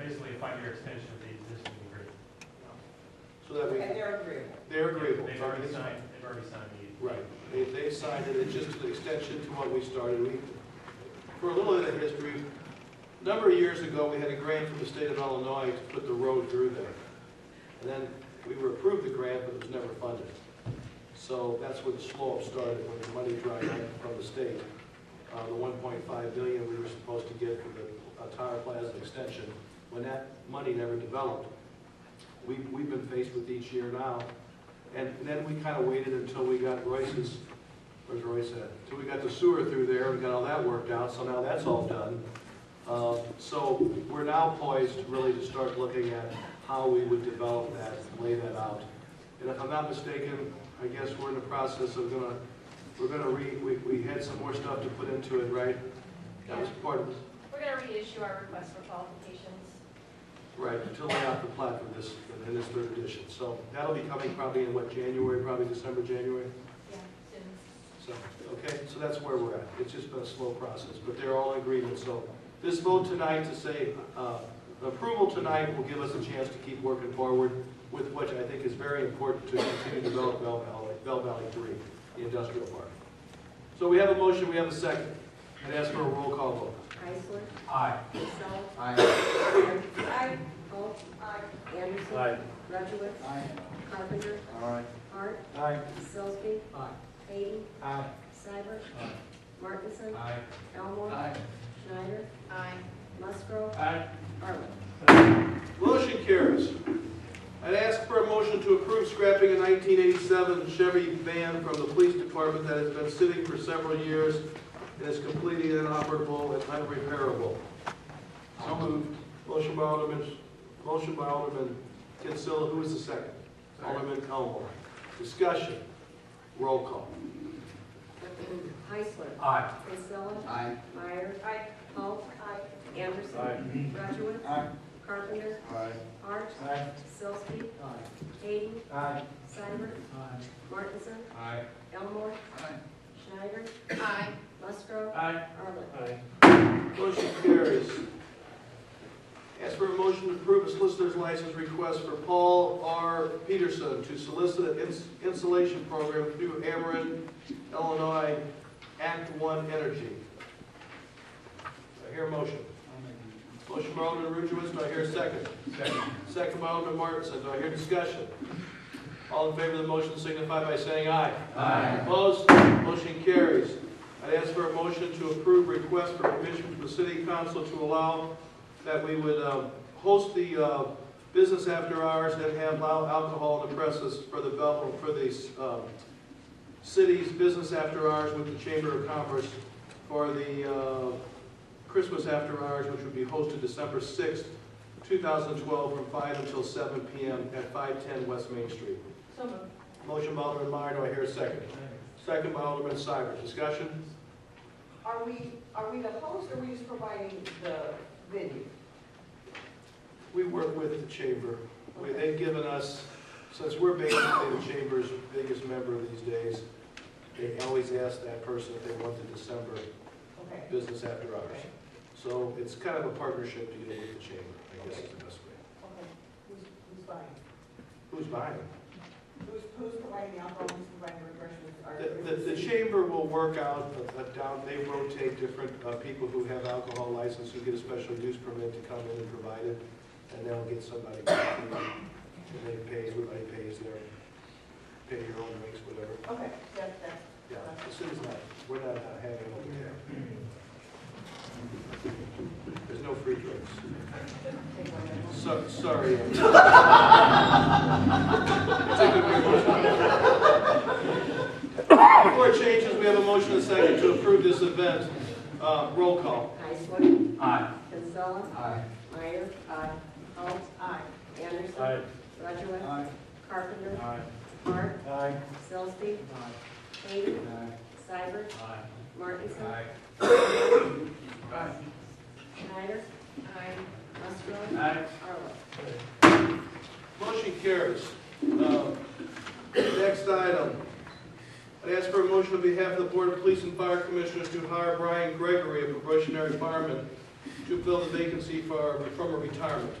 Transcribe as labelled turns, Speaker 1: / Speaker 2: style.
Speaker 1: a five-year extension of the existing agreement.
Speaker 2: So that we,
Speaker 3: And they're agreeable.
Speaker 2: they're agreeable.
Speaker 1: They've already signed, they've already signed the.
Speaker 2: Right, they, they signed it, it's just an extension to what we started. We, for a little bit of history, a number of years ago, we had a grant from the state of Illinois to put the road through there. And then we were approved the grant, but it was never funded. So that's where the slow-up started, when the money dried up from the state. Uh, the one point five billion we were supposed to get for the uh, Tower Plaza extension, when that money never developed. We, we've been faced with each year now, and then we kind of waited until we got Royce's, where's Royce at? Until we got the sewer through there and got all that worked out, so now that's all done. Uh, So we're now poised really to start looking at how we would develop that, lay that out. And if I'm not mistaken, I guess we're in the process of gonna, we're gonna re, we, we had some more stuff to put into it, right? That was part of,
Speaker 4: We're gonna reissue our request for qualifications.
Speaker 2: right, to lay out the plan for this, in this third edition. So that'll be coming probably in what, January, probably December, January?
Speaker 4: Yeah, soon.
Speaker 2: So, okay, so that's where we're at. It's just been a slow process, but they're all in agreement. So this vote tonight to say, uh, approval tonight will give us a chance to keep working forward with which I think is very important to continue to develop Bell Valley, Bell Valley Three, the industrial park. So we have a motion, we have a second. I'd ask for a roll call vote.
Speaker 5: Heisler.
Speaker 1: Aye.
Speaker 5: Crisell.
Speaker 6: Aye.
Speaker 5: Anderson. Holt. Anderson.
Speaker 1: Aye.
Speaker 5: Rudowitz. Carpenter.
Speaker 6: Aye.
Speaker 5: Hart.
Speaker 6: Aye.
Speaker 5: Sillsby.
Speaker 6: Aye.
Speaker 5: Hayden.
Speaker 6: Aye.
Speaker 5: Cybert. Martinson.
Speaker 1: Aye.
Speaker 5: Elmore. Schneider.
Speaker 4: Aye.
Speaker 5: Musgrove.
Speaker 1: Aye.
Speaker 5: Arlen.
Speaker 2: Motion carries. I'd ask for a motion to approve scrapping a 1987 Chevy van from the police department that has been sitting for several years and is completely inoperable and unrepairable. So moved. Motion by Alderman, motion by Alderman Kinsella, who is the second? Alderman Elmore. Discussion. Roll call.
Speaker 5: Heisler.
Speaker 1: Aye.
Speaker 5: Crisell.
Speaker 6: Aye.
Speaker 5: Meyer.
Speaker 4: Aye.
Speaker 5: Holt. Anderson. Rudowitz.
Speaker 6: Aye.
Speaker 5: Carpenter.
Speaker 6: Aye.
Speaker 5: Hart.
Speaker 6: Aye.
Speaker 5: Sillsby. Hayden.
Speaker 6: Aye.
Speaker 5: Cybert.
Speaker 6: Aye.
Speaker 5: Martinson.
Speaker 1: Aye.
Speaker 5: Elmore.
Speaker 6: Aye.
Speaker 5: Schneider.
Speaker 4: Aye.
Speaker 5: Musgrove.
Speaker 1: Aye.
Speaker 5: Arlen.
Speaker 1: Aye.
Speaker 2: Motion carries. Ask for a motion to approve a solicitor's license request for Paul R. Peterson to solicit an ins- insulation program through Ameren, Illinois, Act One Energy. Do I hear a motion? Motion by Alderman Rudowitz, do I hear a second? Second. Second by Alderman Martinson, do I hear discussion? All in favor of the motion signify by saying aye.
Speaker 6: Aye.
Speaker 2: Opposed, motion carries. I'd ask for a motion to approve request for permission from the city council to allow that we would um, host the uh, business after hours and have allow alcohol in the presses for the Belleville, for the um, city's business after hours with the Chamber of Commerce for the uh, Christmas after hours, which would be hosted December 6th, 2012, from 5 until 7 p.m. at 510 West Main Street.
Speaker 4: So moved.
Speaker 2: Motion by Alderman Meyer, do I hear a second? Second by Alderman Cybert, discussion?
Speaker 3: Are we, are we the host or are we just providing the venue?
Speaker 2: We work with the chamber. We- They've given us, since we're basically the chamber's biggest member these days, they always ask that person if they want the December
Speaker 3: Okay.
Speaker 2: business after hours.
Speaker 3: Okay.
Speaker 2: So it's kind of a partnership deal with the chamber, I guess is the best way.
Speaker 3: Okay. Who's, who's buying?
Speaker 2: Who's buying? it?
Speaker 3: Who's, who's providing the alcohol, who's providing the refreshments? Are-
Speaker 2: The, the, the chamber will work out, a- a down, they rotate different uh, people who have alcohol license, who get a special use permit to come in and provide it, and they'll get somebody, and they pay, everybody pays their, pay your own rates, whatever.
Speaker 3: Okay, that, that's.
Speaker 2: Yeah, as soon as that, we're not uh, having it over there. There's no free drinks.
Speaker 3: take one of them.
Speaker 2: So, sorry. Take a break. Before it changes, we have a motion and a second to approve this event. Uh, roll call.
Speaker 5: Heisler.
Speaker 1: Aye.
Speaker 5: Kinsella.
Speaker 6: Aye.
Speaker 5: Meyer. Aye. Holt.
Speaker 3: Aye.
Speaker 5: Anderson.
Speaker 1: Aye.
Speaker 5: Rudowitz.
Speaker 6: Aye.
Speaker 5: Carpenter.
Speaker 1: Aye.
Speaker 5: Hart.
Speaker 6: Aye.
Speaker 5: Sillsby.
Speaker 6: Aye.
Speaker 5: Hayden.
Speaker 6: Aye.
Speaker 5: Cybert.
Speaker 1: Aye.
Speaker 5: Martinson.
Speaker 1: Aye.
Speaker 5: Schneider.
Speaker 4: Aye.
Speaker 5: Musgrove.
Speaker 1: Aye.
Speaker 5: Arlen.
Speaker 2: Motion carries. Uh, Next item. I'd ask for a motion on behalf of the Board of Police and Fire Commissioners to hire Brian Gregory, a probationary fireman, to fill the vacancy for, from a retirement.